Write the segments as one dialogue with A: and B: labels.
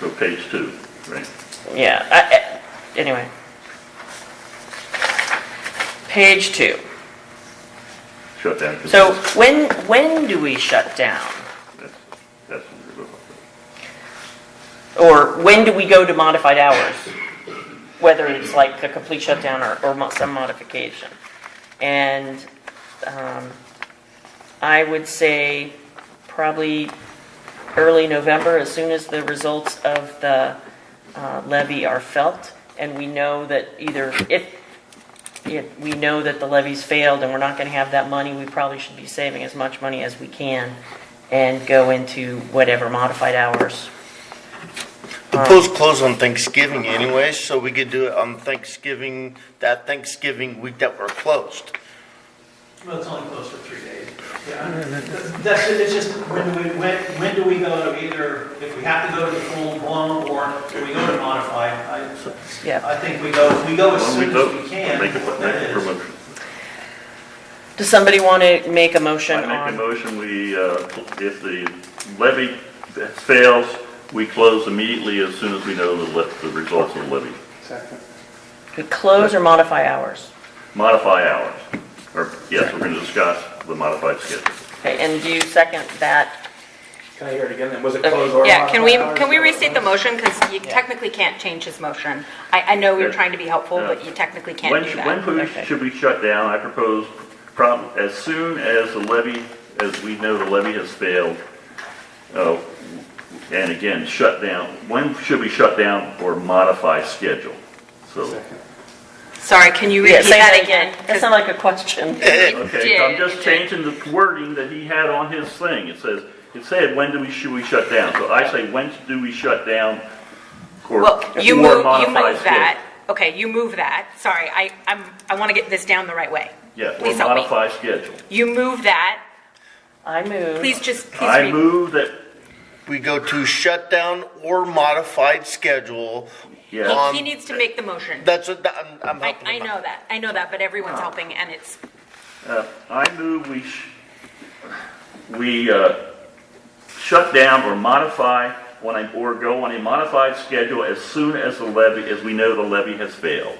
A: So page two, right?
B: Yeah, I- I- anyway. Page two.
A: Shut down. for
B: So
A: business.
B: when, when do we shut down?
A: That's- That's what we're looking for.
B: Or when do we go to modified hours? Whether it's like a complete shutdown or, or mo- some modification. And, um, I would say probably early November, as soon as the results of the uh, levy are felt. And we know that either, if, if we know that the levy's failed and we're not gonna have that money, we probably should be saving as much money as we can and go into whatever modified hours
C: The pool's closed on Thanksgiving anyway, so we could do it on Thanksgiving, that Thanksgiving week that we're closed.
D: Well, it's only closed for three days. Yeah, That's, it's just, when do we, when, when do we go to either, if we have to go to the full blown or do we go to modified? I,
B: Yeah,
D: I think we go, we go as
A: Well,
D: soon
A: vote,
D: as we can.
A: Make a,
D: what
A: make
D: that
A: a
D: is.
A: promotion.
B: does somebody want to make a motion
A: I make a
B: on,
A: motion, we, uh, if the levy fails, we close immediately as soon as we know the, le- the results of the levy.
B: to close or modify hours?
A: Modify hours, or, yes, we're gonna discuss the modified schedule.
B: Okay, and do you second that?
E: Can I hear it again then? Was it
B: Okay.
E: closed or?
F: Yeah, can we,
E: modified hours?
F: can we restate the motion? Because you
B: Yeah.
F: technically can't change his motion. I, I know we were
A: Yeah.
F: trying to be helpful,
A: Yeah.
F: but you technically can't
A: When,
F: do
A: should- when
F: that.
A: should we-
B: Okay.
A: should we shut down? I propose prob, as soon as the levy, as we know the levy has failed, uh, and again, shut down, when should we shut down or modify schedule? So,
F: Sorry, can you
B: Yeah,
F: repeat
B: say
F: that again?
B: That's not like a question.
A: okay, so I'm
F: did,
A: just
F: it did.
A: changing the wording that he had on his thing. It says, it said, when do we, should we shut down? So I say, when do we shut down or,
F: Well, you
A: or
F: move, you
A: modify
F: move
A: schedule?
F: that. Okay, you move that. Sorry, I, I'm, I want to get this down the right way.
A: Yeah, or
F: Please help me.
A: modify schedule.
F: You move that.
B: I move.
F: Please just, please
A: I
F: read.
A: move that,
C: We go to shutdown or modified schedule.
A: yeah.
C: On-
F: He needs to make the motion.
C: That's what, I'm, I'm
F: I,
C: helping
F: I
C: him out.
F: know that. I know that, but
A: Oh.
F: everyone's helping and it's,
A: Uh, I move we, sh- we uh, shut down or modify on a, or go on a modified schedule as soon as the levy, as we know the levy has failed.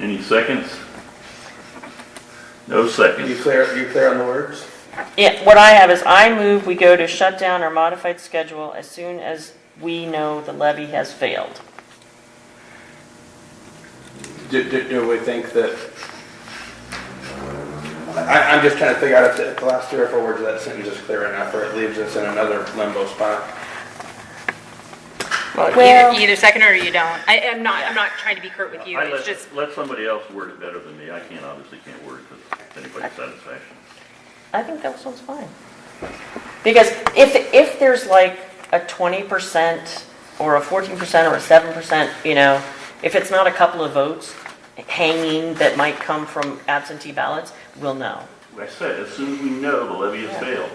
A: Any seconds? No
E: You
A: seconds.
E: clear, you clear on the words?
B: Yeah, what I have is I move we go to shutdown or modified schedule as soon as we know the levy has failed.
E: Do, do, do we think that? I, I'm just trying to figure out if the, if the last three or four words of that sentence is clear enough, or it leaves us in another limbo spot.
B: Well-
F: either, you either second or you don't. I, I'm not, I'm not trying to be curt with you.
A: I
F: It's
A: let-
F: just,
A: Let somebody else word it better than me. I can't, obviously can't word it to anybody's satisfaction.
B: I think that one's fine. Because if, if there's like a 20% or a 14% or a 7%, you know, if it's not a couple of votes hanging that might come from absentee ballots, we'll know.
A: Like I said, as soon as we know the levy has failed.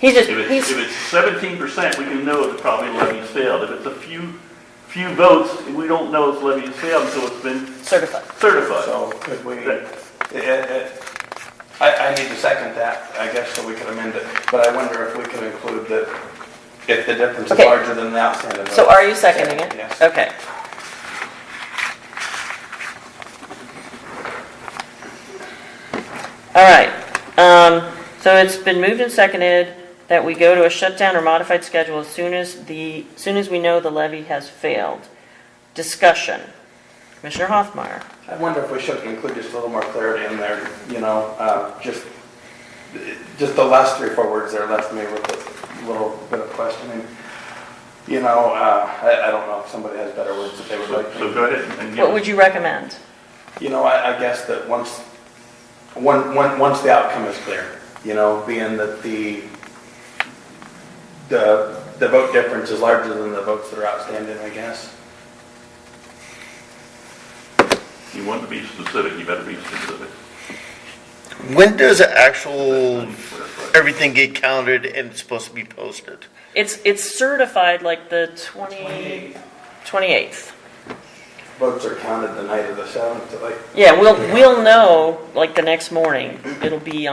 B: He's just,
A: If
B: he's.
A: it's, if it's seventeen percent, we can know it's probably levy has failed. If it's a few, few votes, we don't know it's levy has failed until it's been
B: Certified.
A: certified.
E: So could we,
A: That-
E: it- it- it- I, I need to second that, I guess, so we could amend it, but I wonder if we could include that if the difference is
B: Okay.
E: larger than the outstanding.
B: So are you seconding it?
E: Yes.
B: Okay. All right, um, so it's been moved and seconded that we go to a shutdown or modified schedule as soon as the, soon as we know the levy has failed. Discussion. Commissioner Hoffmeyer,
E: I wonder if we should include just a little more clarity in there, you know, uh, just, just the last three, four words there left me with a little bit of questioning. You know, uh, I, I don't know if somebody has better words that they would
A: So
E: like.
A: so
E: to
A: go ahead and
B: what would
A: give,
B: you recommend?
E: You know, I, I guess that once, one, one, once the outcome is clear, you know, being that the, the, the vote difference is larger than the votes that are outstanding, I guess.
A: you want to be specific, you better be specific.
C: When does the actual,
A: Clarify.
C: everything get counted and it's supposed to be posted?
B: It's, it's certified like the twenty, twenty-eighth.
E: Votes are counted the night of the seventh, like,
B: Yeah, we'll, we'll know like the next morning. It'll be